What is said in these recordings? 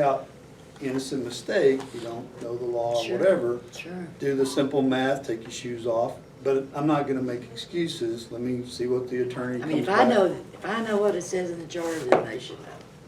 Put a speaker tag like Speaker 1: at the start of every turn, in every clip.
Speaker 1: out innocent mistake, you don't know the law or
Speaker 2: Sure.
Speaker 1: whatever,
Speaker 2: Sure.
Speaker 1: do the simple math, take your shoes off, but I'm not gonna make excuses, let me see what the attorney
Speaker 2: I mean,
Speaker 1: comes
Speaker 2: if
Speaker 1: back.
Speaker 2: I know, if I know what it says in the charter, then they should know,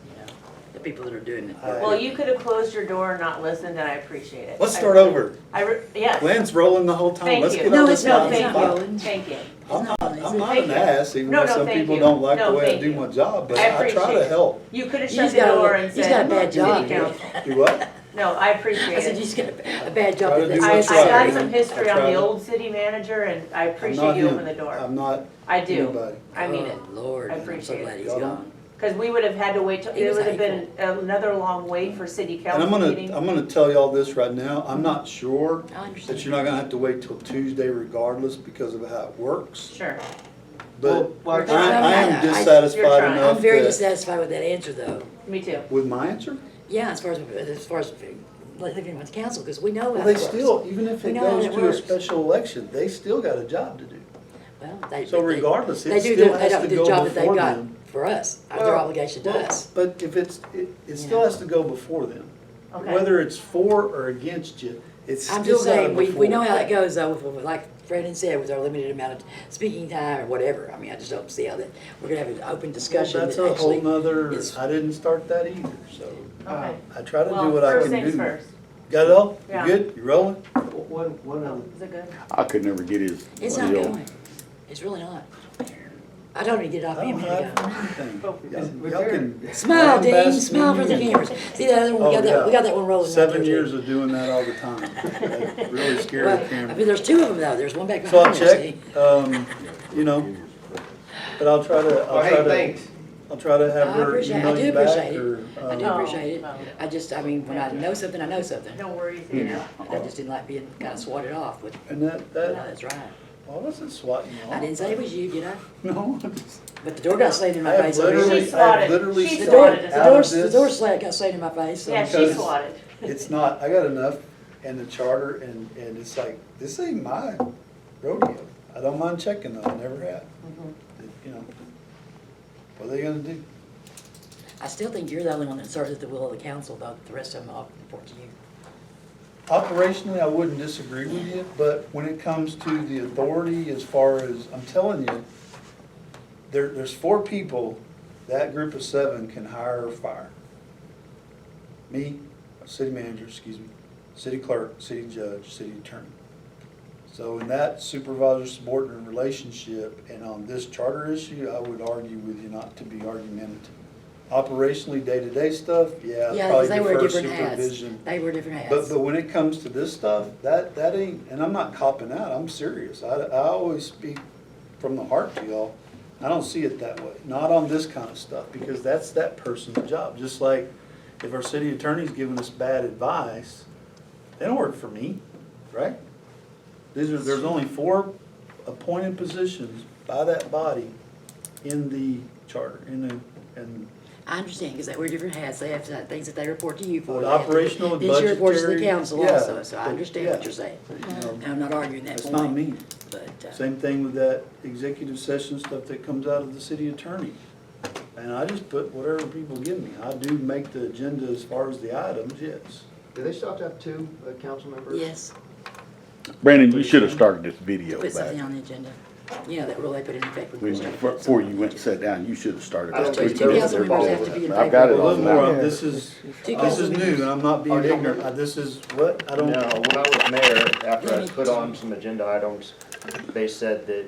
Speaker 2: you know, the people that are doing it.
Speaker 1: Well,
Speaker 3: Well, you could have closed your door and not listened, and I appreciate it.
Speaker 1: Let's start over,
Speaker 3: I, re- yes.
Speaker 1: Lynn's rolling the whole time,
Speaker 3: Thank
Speaker 1: let's
Speaker 3: you.
Speaker 1: get
Speaker 2: No,
Speaker 1: all
Speaker 2: it's
Speaker 1: this
Speaker 2: not-
Speaker 1: down.
Speaker 2: it's
Speaker 3: Thank
Speaker 2: not
Speaker 3: you,
Speaker 2: rolling.
Speaker 3: thank you.
Speaker 1: I'm not, I'm not
Speaker 3: Thank
Speaker 1: an
Speaker 3: you.
Speaker 1: ass, even
Speaker 3: No,
Speaker 1: though
Speaker 3: no,
Speaker 1: some
Speaker 3: thank
Speaker 1: people
Speaker 3: you.
Speaker 1: don't like the
Speaker 3: No,
Speaker 1: way I
Speaker 3: thank
Speaker 1: do
Speaker 3: you.
Speaker 1: my job, but
Speaker 3: I
Speaker 1: I try
Speaker 3: appreciate
Speaker 1: to
Speaker 3: it.
Speaker 1: help.
Speaker 3: You could have
Speaker 2: He's
Speaker 3: shut the
Speaker 2: got a-
Speaker 3: door and
Speaker 2: he's
Speaker 3: said.
Speaker 2: got a bad
Speaker 3: "City
Speaker 2: job.
Speaker 3: Council."
Speaker 1: Do what?
Speaker 3: No, I
Speaker 2: I
Speaker 3: appreciate
Speaker 2: said, you
Speaker 3: it.
Speaker 2: just got a a bad job.
Speaker 1: Try to
Speaker 2: with
Speaker 1: do
Speaker 2: this.
Speaker 3: I, I
Speaker 1: what's right.
Speaker 3: got some history
Speaker 1: I
Speaker 3: on
Speaker 1: tried
Speaker 3: the
Speaker 1: it.
Speaker 3: old city manager, and I
Speaker 1: I'm
Speaker 3: appreciate
Speaker 1: not
Speaker 3: you
Speaker 1: him.
Speaker 3: opening the door.
Speaker 1: I'm Uh, not
Speaker 3: I do,
Speaker 1: anybody.
Speaker 3: I mean it.
Speaker 2: Oh, Lord,
Speaker 3: I
Speaker 2: I'm so
Speaker 3: appreciate
Speaker 2: glad
Speaker 3: it.
Speaker 2: he's
Speaker 1: Y'all don't-
Speaker 2: gone.
Speaker 3: Because we would have had to wait, till
Speaker 2: He
Speaker 3: it
Speaker 2: was
Speaker 3: would have been another long wait for city
Speaker 1: And I'm
Speaker 3: council
Speaker 1: gonna,
Speaker 3: meeting.
Speaker 1: I'm gonna tell y'all this right now, I'm not sure
Speaker 2: I
Speaker 1: that
Speaker 2: understand.
Speaker 1: you're not gonna have to wait till Tuesday regardless because of how it works.
Speaker 3: Sure.
Speaker 1: But
Speaker 3: Well,
Speaker 1: I,
Speaker 3: well,
Speaker 1: I
Speaker 2: I- I-
Speaker 1: am dissatisfied
Speaker 3: trying.
Speaker 1: enough
Speaker 2: I'm very
Speaker 1: that,
Speaker 2: dissatisfied with that answer, though.
Speaker 3: Me too.
Speaker 1: with my answer?
Speaker 2: Yeah, as far as, as far as living with council, because we know
Speaker 1: Well,
Speaker 2: how it
Speaker 1: they
Speaker 2: works.
Speaker 1: still, even if it
Speaker 2: We know how
Speaker 1: goes
Speaker 2: that
Speaker 1: to a
Speaker 2: works.
Speaker 1: special election, they still got a job to do.
Speaker 2: Well, they-
Speaker 1: So
Speaker 2: they-
Speaker 1: regardless,
Speaker 2: They
Speaker 1: it
Speaker 2: do,
Speaker 1: still
Speaker 2: the- they
Speaker 1: has
Speaker 2: don't
Speaker 1: to
Speaker 2: do the job
Speaker 1: go
Speaker 2: that they
Speaker 1: before
Speaker 2: got
Speaker 1: them.
Speaker 2: for us, uh, their
Speaker 1: Well,
Speaker 2: obligation to
Speaker 1: well,
Speaker 2: us.
Speaker 1: But if it's, it, it still
Speaker 2: Yeah.
Speaker 1: has to go before them.
Speaker 3: Okay.
Speaker 1: Whether it's for or against you, it's
Speaker 2: I'm
Speaker 1: still
Speaker 2: just
Speaker 1: gotta
Speaker 2: saying,
Speaker 1: before.
Speaker 2: we, we know how that goes, though, with- with- like Brendan said, with our limited amount of speaking time or whatever. I mean, I just don't see how that, we're gonna have an open
Speaker 1: Well,
Speaker 2: discussion
Speaker 1: That's
Speaker 2: that
Speaker 1: a whole
Speaker 2: actually.
Speaker 1: nother,
Speaker 2: is-
Speaker 1: I didn't start that either, so
Speaker 3: Okay.
Speaker 1: I try to
Speaker 3: Well,
Speaker 1: uh, do what I
Speaker 3: first
Speaker 1: can
Speaker 3: things
Speaker 1: do.
Speaker 3: first.
Speaker 1: Got it all? You
Speaker 3: Yeah.
Speaker 1: good? You rolling?
Speaker 4: One, one um, other,
Speaker 3: Is it good?
Speaker 5: I could never get his.
Speaker 2: It's
Speaker 5: what
Speaker 2: not
Speaker 5: he'll-
Speaker 2: going. It's really not. I don't need to get it
Speaker 1: I
Speaker 2: off me a
Speaker 1: don't
Speaker 2: minute
Speaker 1: have
Speaker 2: ago.
Speaker 1: anything.
Speaker 3: Focus.
Speaker 1: Y'all- Y'all can.
Speaker 2: Smile, Dean,
Speaker 1: lambast
Speaker 2: smile
Speaker 1: me
Speaker 2: for the
Speaker 1: and-
Speaker 2: cameras. See that other one, we
Speaker 1: Oh,
Speaker 2: got that, we
Speaker 1: yeah.
Speaker 2: got that one rolling. right there,
Speaker 1: Seven
Speaker 2: too.
Speaker 1: years of doing that all the time. That Really
Speaker 2: Well,
Speaker 1: scary
Speaker 2: I
Speaker 1: camera.
Speaker 2: mean, there's two of them, though. There's one back
Speaker 1: So I'll
Speaker 2: behind there,
Speaker 1: check,
Speaker 2: see?
Speaker 1: um, you know, but I'll try to,
Speaker 4: oh,
Speaker 1: I'll try
Speaker 4: hey,
Speaker 1: to,
Speaker 4: thanks.
Speaker 1: I'll try to have
Speaker 2: I
Speaker 1: her
Speaker 2: appreciate- I
Speaker 1: email
Speaker 2: do
Speaker 1: you back
Speaker 2: appreciate it.
Speaker 1: or.
Speaker 2: I do
Speaker 1: um,
Speaker 3: No,
Speaker 2: appreciate it.
Speaker 3: no.
Speaker 2: I just, I mean, when I know something, I know something.
Speaker 3: No worries
Speaker 2: You
Speaker 1: Hmm.
Speaker 3: here.
Speaker 2: know, I just didn't like being kind of swatted off, but
Speaker 1: And that,
Speaker 2: no,
Speaker 1: that,
Speaker 2: that's right.
Speaker 1: I wasn't swatting you
Speaker 2: I didn't
Speaker 1: off.
Speaker 2: say it was you, did I?
Speaker 1: No, I just-
Speaker 2: But the door got slammed in
Speaker 1: I
Speaker 2: my
Speaker 1: have
Speaker 2: face. over here.
Speaker 1: literally, I have
Speaker 3: swatted.
Speaker 1: literally
Speaker 3: She
Speaker 2: The
Speaker 1: swatted
Speaker 2: door,
Speaker 3: swatted
Speaker 1: out of this.
Speaker 3: us.
Speaker 2: the door, the door slam got slammed in my face. so-
Speaker 3: Yeah, she
Speaker 1: because-
Speaker 3: swatted.
Speaker 1: It's not, I got enough in the charter and, and it's like, this ain't my rodeo. I don't mind checking though, I never have. You know, what are they gonna do?
Speaker 2: I still think you're the only one that serves at the will of the council, though. The rest of them all report to you.
Speaker 1: Operationally, I wouldn't disagree with you, but when it comes to the authority, as far as, I'm telling you, there, there's four people, that group of seven can hire or fire. Me, city manager, excuse me, city clerk, city judge, city attorney. So in that supervisor subordinate relationship, and on this charter issue, I would argue with you not to be argumentative. Operationally, day-to-day stuff, yeah,
Speaker 2: Yeah,
Speaker 1: probably
Speaker 2: because they wear
Speaker 1: defer
Speaker 2: different hats.
Speaker 1: supervision.
Speaker 2: They wear different
Speaker 1: But,
Speaker 2: hats.
Speaker 1: but when it comes to this stuff, that, that ain't, and I'm not copping out, I'm serious. I, I always speak from the heart to y'all. I don't see it that way, not on this kind of stuff, because that's that person's job. Just like if our city attorney's giving us bad advice, they don't work for me, right? These are, there's only four appointed positions by that body in the charter, in the, in
Speaker 2: I understand, because they wear different hats. They have uh, things that they report to you
Speaker 1: Well,
Speaker 2: for. They have to-
Speaker 1: operational and
Speaker 2: These reports to the
Speaker 1: budgetary,
Speaker 2: council
Speaker 1: yeah,
Speaker 2: also, so I
Speaker 1: but-
Speaker 2: understand what
Speaker 1: yeah.
Speaker 2: you're saying.
Speaker 1: you know,
Speaker 2: I'm not arguing that
Speaker 1: that's
Speaker 2: point.
Speaker 1: not me.
Speaker 2: But, uh,
Speaker 1: Same thing with that executive session stuff that comes out of the city attorney. And I just put whatever people give me. I do make the agenda as far as the items, yes.
Speaker 4: Do they still have to have two uh, council members?
Speaker 2: yes,
Speaker 5: Brandon, you should have started this video
Speaker 2: put something
Speaker 5: back.
Speaker 2: on the agenda. You know, that rule they put in effect. when
Speaker 5: When
Speaker 2: we
Speaker 5: you-
Speaker 2: started.
Speaker 5: Before you went and sat down, you should have started.
Speaker 4: I don't
Speaker 5: that.
Speaker 4: think
Speaker 5: We can
Speaker 4: two
Speaker 5: get
Speaker 4: council
Speaker 5: there
Speaker 2: members
Speaker 5: all
Speaker 2: have to
Speaker 5: the
Speaker 2: be in
Speaker 5: way. I've got
Speaker 2: favor
Speaker 5: it
Speaker 2: of
Speaker 1: A
Speaker 5: all
Speaker 1: little more,
Speaker 5: now.
Speaker 1: this is,
Speaker 2: Two
Speaker 1: this is new,
Speaker 2: council members.
Speaker 1: and I'm not being ignorant. I- This is, what? I
Speaker 4: No,
Speaker 1: don't.
Speaker 4: when I was mayor, after I put on some agenda items, they said that,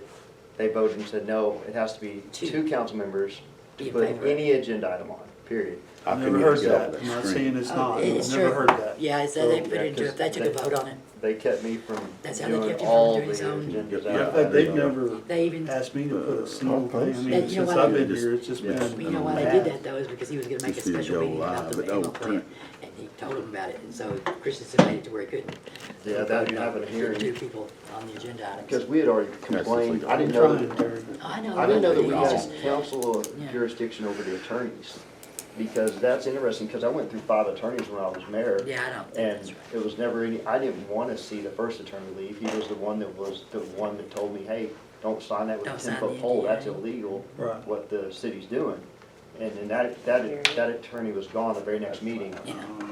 Speaker 4: they voted and said, no, it has to be
Speaker 2: Two.
Speaker 4: two council members
Speaker 2: Be
Speaker 4: to
Speaker 2: in
Speaker 4: put
Speaker 2: favor.
Speaker 4: any agenda item on, period.
Speaker 5: I
Speaker 1: I've never
Speaker 5: couldn't
Speaker 1: heard
Speaker 5: even get
Speaker 1: that.
Speaker 5: off
Speaker 1: I'm not
Speaker 5: that screen.
Speaker 1: saying it's
Speaker 2: Oh,
Speaker 1: not.
Speaker 2: it's
Speaker 1: I've never
Speaker 2: true.
Speaker 1: heard that.
Speaker 2: Yeah, so they
Speaker 4: So,
Speaker 2: put
Speaker 4: Oh, yeah,
Speaker 2: it into,
Speaker 4: 'cause
Speaker 2: it. they took a
Speaker 4: they-
Speaker 2: vote on it.
Speaker 4: They kept me from
Speaker 2: That's how they
Speaker 4: doing
Speaker 2: kept you from
Speaker 4: all the
Speaker 2: doing his own.
Speaker 4: agendas.
Speaker 5: Yeah,
Speaker 1: Matter
Speaker 4: out.
Speaker 1: of fact, they've never
Speaker 2: They even,
Speaker 1: asked me to put a single thing. I
Speaker 2: That-
Speaker 1: mean,
Speaker 2: you know
Speaker 1: since
Speaker 2: what?
Speaker 1: I've been here, it's just
Speaker 5: Yeah.
Speaker 1: been.
Speaker 2: you know why they did that though, is because he was gonna make a
Speaker 5: This is
Speaker 2: special
Speaker 5: Joe
Speaker 2: meeting about
Speaker 5: Live,
Speaker 2: the
Speaker 5: but
Speaker 2: annual
Speaker 5: oh,
Speaker 2: plan.
Speaker 5: print.
Speaker 2: And he told him about it, and so Christensen made it to where he couldn't.
Speaker 4: Yeah, that happened
Speaker 2: Put
Speaker 4: here.
Speaker 2: Two people on the agenda
Speaker 4: Because
Speaker 2: items.
Speaker 4: we had already complained, I
Speaker 1: I'm
Speaker 4: didn't know
Speaker 1: trying,
Speaker 4: that
Speaker 1: Terry.
Speaker 2: I know.
Speaker 4: I didn't know that we
Speaker 2: but
Speaker 4: had
Speaker 2: it's just-
Speaker 4: council
Speaker 2: Yeah.
Speaker 4: jurisdiction over the attorneys, because that's interesting, because I went through five attorneys when I was mayor.
Speaker 2: Yeah, I don't think that's right.
Speaker 4: And it was never any, I didn't want to see the first attorney leave, he was the one that was, the one that told me, hey, don't sign that with a
Speaker 2: Don't sign
Speaker 4: ten
Speaker 2: the
Speaker 4: foot pole, that's
Speaker 2: NDA.
Speaker 4: illegal,
Speaker 1: Right.
Speaker 4: what the city's doing. And then that, that, that attorney was gone the very next meeting.